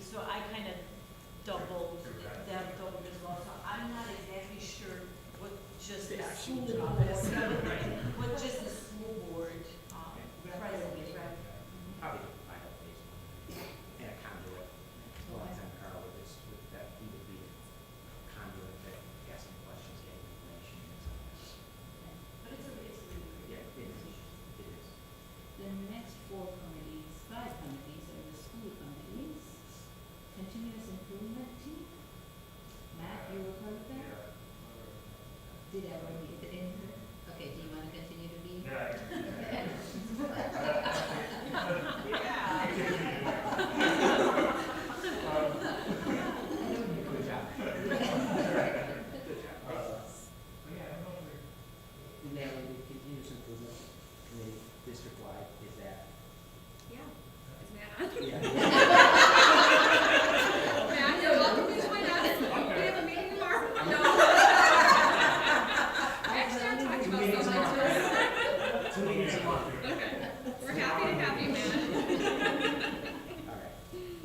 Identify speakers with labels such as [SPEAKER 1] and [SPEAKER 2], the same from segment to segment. [SPEAKER 1] so I kind of doubled them, doubled as well, so I'm not exactly sure what just the
[SPEAKER 2] The
[SPEAKER 1] school
[SPEAKER 2] actual
[SPEAKER 1] board,
[SPEAKER 2] job is.
[SPEAKER 1] what just the school board, um, president,
[SPEAKER 2] Probably the final page. And a conduit. Well, I think Carl with this, with that, he would be a conduit that asking questions, getting information and so on.
[SPEAKER 1] But it's a, it's a really.
[SPEAKER 2] Yeah, it is. It is.
[SPEAKER 3] The next four committees, five committees are the school committees, continuous improvement team. Matt, you were part of that? Did everyone read it in? Okay, do you want to continue to be?
[SPEAKER 1] Yeah.
[SPEAKER 2] Good job. Good job. And that would be continuous improvement committee district-wide, is that?
[SPEAKER 4] Yeah, is Matt on?
[SPEAKER 2] Yeah.
[SPEAKER 4] Matt, you're welcome to join us. We have a meeting tomorrow. No. Actually, I'm talking about so much.
[SPEAKER 2] Two meetings a month.
[SPEAKER 4] Okay, we're happy to have you, Matt.
[SPEAKER 2] All right,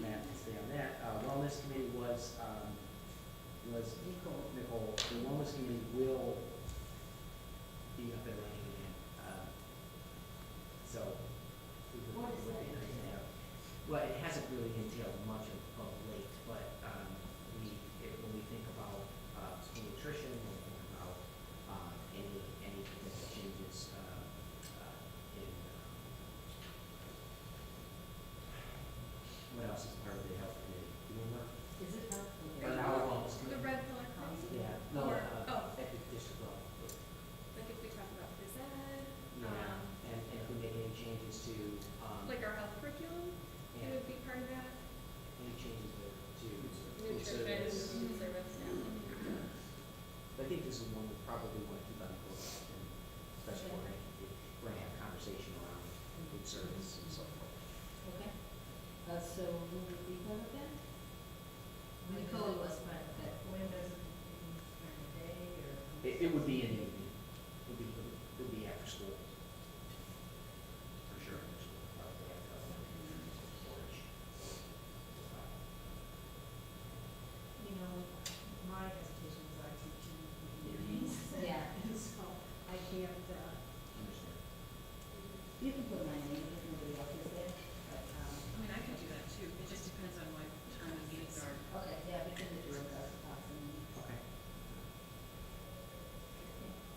[SPEAKER 2] Matt, can stay on that. Uh, Wellness committee was, um, was
[SPEAKER 3] Nicole.
[SPEAKER 2] Nicole, the wellness committee will be up and running again. Um, So. we would-
[SPEAKER 3] What does
[SPEAKER 2] would
[SPEAKER 3] that
[SPEAKER 2] be nice to
[SPEAKER 3] entail?
[SPEAKER 2] have. Well, it hasn't really entailed much of, of late, but, um, we, if, when we think about, uh, school nutrition, when we think about, um, any, any potential changes, uh, uh, in, um, what else is part of the health committee? Do you remember?
[SPEAKER 3] Is it helpful?
[SPEAKER 2] Or our wellness
[SPEAKER 4] The
[SPEAKER 2] committee?
[SPEAKER 4] red pillar policy,
[SPEAKER 2] Yeah, no,
[SPEAKER 4] Or-
[SPEAKER 2] uh,
[SPEAKER 4] oh.
[SPEAKER 2] at the district level.
[SPEAKER 4] like if we talk about phys ed,
[SPEAKER 2] Yeah,
[SPEAKER 4] um,
[SPEAKER 2] and, and if we make any changes to, um,
[SPEAKER 4] like our health curriculum, it
[SPEAKER 2] yeah,
[SPEAKER 4] would be part of that.
[SPEAKER 2] any changes to, to food
[SPEAKER 4] Nutrition,
[SPEAKER 2] service.
[SPEAKER 4] food service, yeah.
[SPEAKER 2] But I think this is one we probably want to keep on the board, and especially when we're gonna have a conversation around food service and so forth.
[SPEAKER 3] Okay. Uh, so who would be part of that? Nicole was part of that.
[SPEAKER 5] When does it, during the day or?
[SPEAKER 2] It, it would be in the evening, it would be, it would be after school. For sure, after school, probably after, uh, lunch.
[SPEAKER 5] You know, my hesitations are teaching evenings.
[SPEAKER 3] Yeah.
[SPEAKER 5] And so I can't, uh,
[SPEAKER 2] Understand.
[SPEAKER 3] You can put my name if nobody else is there.
[SPEAKER 5] but, um,
[SPEAKER 6] I mean, I could do that too, it just depends on what time the meetings are.
[SPEAKER 3] Okay, yeah, we can do it as a possibility.
[SPEAKER 2] Okay.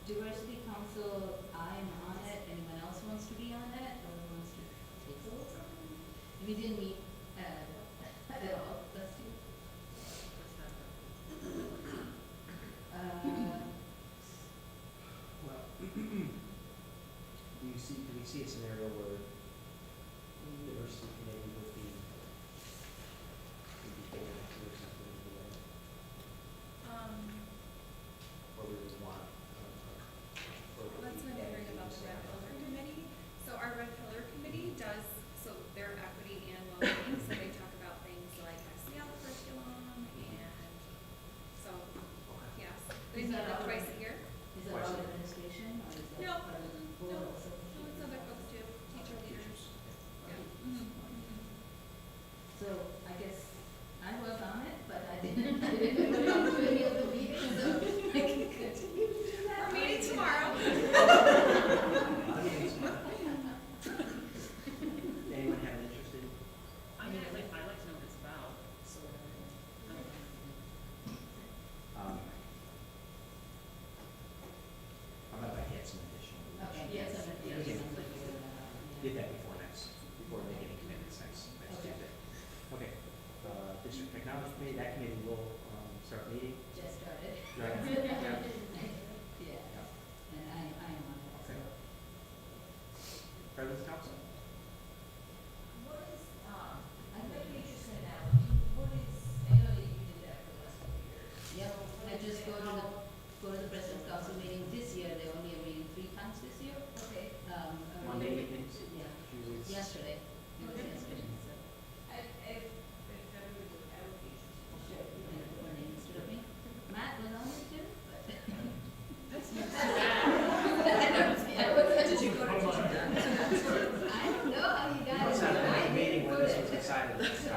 [SPEAKER 3] Diversity Council, I'm on it, anyone else wants to be on it, or wants to take over? We didn't meet, uh, at all, last year.
[SPEAKER 6] What's that?
[SPEAKER 3] Uh,
[SPEAKER 2] Well, do you see, do we see a scenario where the diversity committee would be, would be able to do something in the end,
[SPEAKER 4] Um,
[SPEAKER 2] or we would want? uh, or would
[SPEAKER 4] Well, that's
[SPEAKER 2] we
[SPEAKER 4] when I heard
[SPEAKER 2] add
[SPEAKER 4] about the
[SPEAKER 2] things in?
[SPEAKER 4] Red Pillar Committee. So our Red Pillar Committee does, so their equity and well-being, so they talk about things like SEL curriculum and, so,
[SPEAKER 2] Okay.
[SPEAKER 4] yes. They meet like twice a year.
[SPEAKER 3] is that all administration, or is
[SPEAKER 4] No,
[SPEAKER 3] that part of the board?
[SPEAKER 4] no,
[SPEAKER 3] or something?
[SPEAKER 4] So it's other folks too, teacher leaders. Yeah. Mhm, mhm.
[SPEAKER 3] So I guess I was on it, but I didn't, I didn't put it into any of the meetings, so I can continue to do that.
[SPEAKER 4] We're meeting tomorrow.
[SPEAKER 2] Anyone have an interest in?
[SPEAKER 6] I mean, I'd like, I'd like to know what it's about, so.
[SPEAKER 2] um, How about if I get some additional?
[SPEAKER 3] Okay, yes,
[SPEAKER 2] information?
[SPEAKER 3] I'm
[SPEAKER 2] We
[SPEAKER 3] gonna do
[SPEAKER 2] can
[SPEAKER 3] something with it, uh, yeah.
[SPEAKER 2] Get that before next, before making any commitments next, next
[SPEAKER 3] Okay.
[SPEAKER 2] Tuesday. Okay, uh, district technology committee, that committee will, um, start meeting.
[SPEAKER 3] Just started.
[SPEAKER 2] Right. uh,
[SPEAKER 3] Yeah, and I, I am on it, so.
[SPEAKER 2] President's council,